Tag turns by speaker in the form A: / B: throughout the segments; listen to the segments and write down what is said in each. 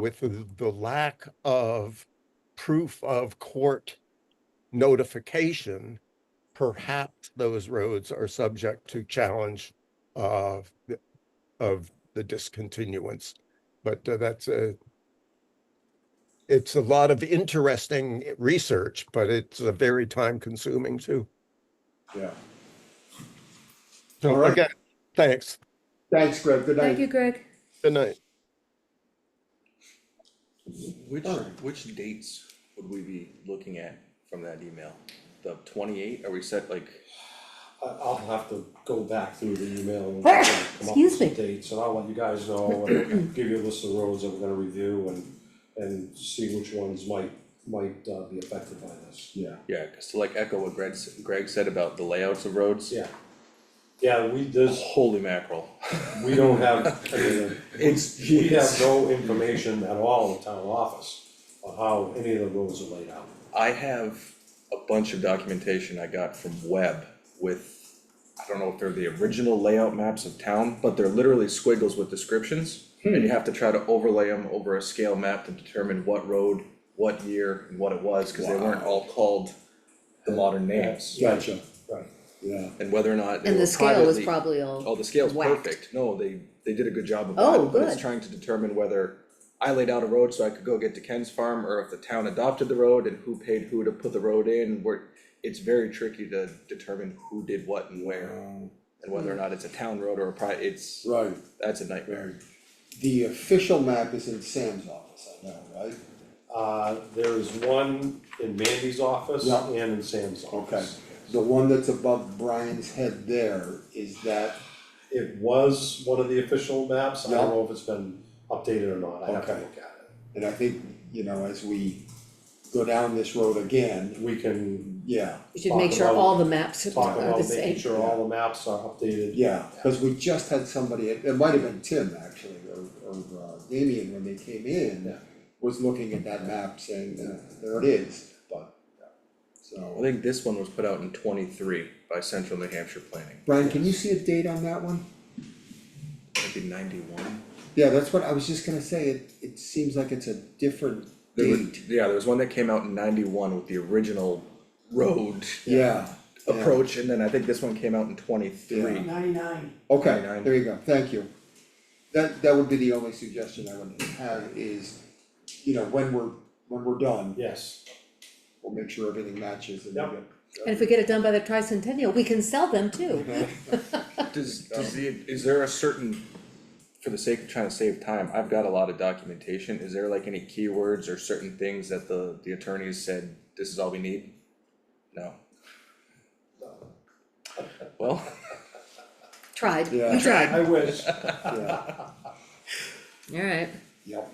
A: with the, the lack of proof of court notification, perhaps those roads are subject to challenge of, the- of the discontinuance. But uh, that's a, it's a lot of interesting research, but it's a very time consuming too.
B: Yeah. All
A: So
B: right.
A: again, thanks.
B: Thanks, Greg. Good
C: Thank
B: night.
C: you, Greg.
A: Good night.
D: Which,
B: Alright.
D: which dates would we be looking at from that email? The twenty-eight, are we set like,
B: I, I'll have to go back through the email and come up with
C: Ah, Excuse
B: some
C: me.
B: dates, and I'll let you guys know, and give you a list of roads that we're gonna review and, and see which ones might, might uh, be affected by this, yeah.
D: yeah, cause to like echo what Greg, s- Greg said about the layouts of roads.
B: Yeah. Yeah, we, there's,
D: Holy mackerel,
B: we don't have, I mean,
D: it's,
B: we have
D: it's,
B: no information at all in town office on how any of the roads are laid out.
D: I have a bunch of documentation I got from Webb with, I don't know if they're the original layout maps of town, but they're literally squiggles with descriptions. And you have to try to overlay them over a scale map to determine what road, what year, and what it was, cause they weren't all called the modern names.
B: Gotcha. Right. Yeah.
D: and whether or not they
C: And
D: were
C: the scale was
D: privately-
C: probably all.
D: Oh, the scale's
C: whacked.
D: perfect, no, they, they did a good job of that.
C: Oh,
D: But it's
C: good.
D: trying to determine whether I laid out a road so I could go get to Ken's farm, or if the town adopted the road and who paid who to put the road in, where it's very tricky to determine who did what and where, and whether or not it's a town road or a pri- it's,
E: Oh. Right,
D: that's a nightmare.
E: the official map is in Sam's office, I know, right?
B: Uh, there is one in Mandy's office
E: Yeah.
B: and in Sam's
E: Okay,
B: office.
E: the one that's above Brian's head there, is that,
B: It was one of the official maps, I don't know if it's been updated or not, I have to
E: Okay.
B: look at
E: and I think, you know, as we go down this road
B: it.
E: again,
B: We can
E: yeah,
C: You should make sure
B: Talk about-
C: all the maps are
B: talk
C: are the
B: about making
C: same.
B: sure all the maps are updated.
E: yeah, cause we just had somebody, it it might have been Tim actually, or, or uh, Damien when they came in,
B: Yeah.
E: was looking at that map saying, "Uh, there it is, but, yeah.
D: I
E: so.
D: think this one was put out in twenty-three by Central New Hampshire Planning,
E: Brian, can you see a date on that one?
D: might be ninety-one.
E: Yeah, that's what, I was just gonna say, it, it seems like it's a different
D: There was,
E: date,
D: yeah, there was one that came out in ninety-one with the original road
E: yeah. yeah.
D: approach, and then I think this one came out in twenty-three.
F: Ninety-nine.
E: Okay,
D: 29.
E: there you go, thank you. That, that would be the only suggestion I would have is, you know, when we're, when we're done,
B: Yes,
E: we'll make sure everything matches and we
B: Yep.
E: get-
C: And if we get it done by the tricentennial, we can sell them
B: Mm-hmm.
C: too.
D: Does, does the, is there a certain, for the sake of trying to save time, I've got a lot of documentation, is there like any keywords or certain things that the, the attorneys said, this is all we need? No. Well,
C: Tried,
E: Yeah.
C: we tried,
B: I wish,
E: yeah,
C: alright.
E: yep.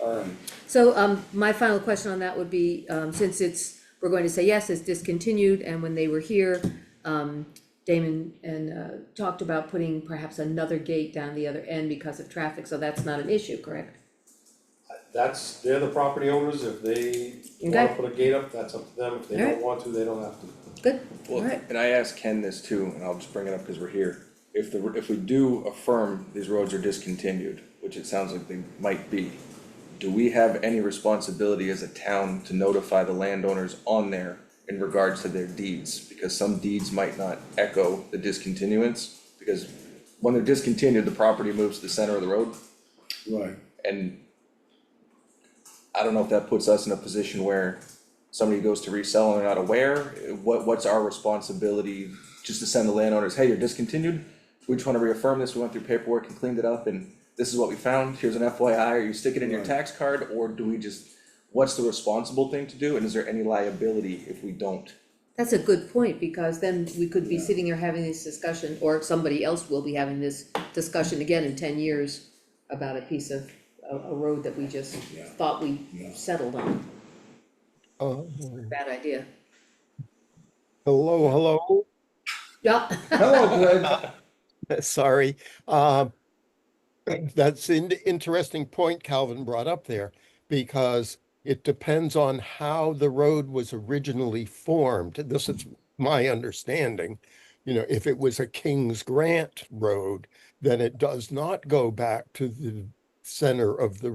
E: Alright,
C: So, um, my final question on that would be, um, since it's, we're going to say yes, it's discontinued, and when they were here, um, Damon and, uh, talked about putting perhaps another gate down the other end because of traffic, so that's not an issue, correct?
B: that's, they're the property owners, if they wanna
C: Okay.
B: put a gate up, that's up to them, if they
C: All
B: don't
C: right.
B: want to, they don't have to.
C: Good,
D: well,
C: alright.
D: and I asked Ken this too, and I'll just bring it up because we're here. If the, if we do affirm these roads are discontinued, which it sounds like they might be, do we have any responsibility as a town to notify the landowners on there in regards to their deeds? Because some deeds might not echo the discontinuance, because when they're discontinued, the property moves to the center of the road.
E: right,
D: And I don't know if that puts us in a position where somebody goes to resell and they're not aware, eh, what, what's our responsibility? Just to send the landowners, hey, you're discontinued, we just wanna reaffirm this, we went through paperwork and cleaned it up and this is what we found, here's an FYI, are you sticking it in your
E: Right.
D: tax card, or do we just, what's the responsible thing to do, and is there any liability if we don't?
C: That's a good point, because then we could be
E: Yeah.
C: sitting here having this discussion, or somebody else will be having this discussion again in ten years about a piece of, a, a road that we just
E: Yeah.
C: thought we
E: Yeah.
C: settled on.
A: Um,
C: Bad idea.
A: Hello, hello.
C: Yeah,
E: hello Greg,
A: Sorry. Um, That's an interesting point Calvin brought up there, because it depends on how the road was originally formed. This is my understanding. You know, if it was a King's Grant road, then it does not go back to the center of the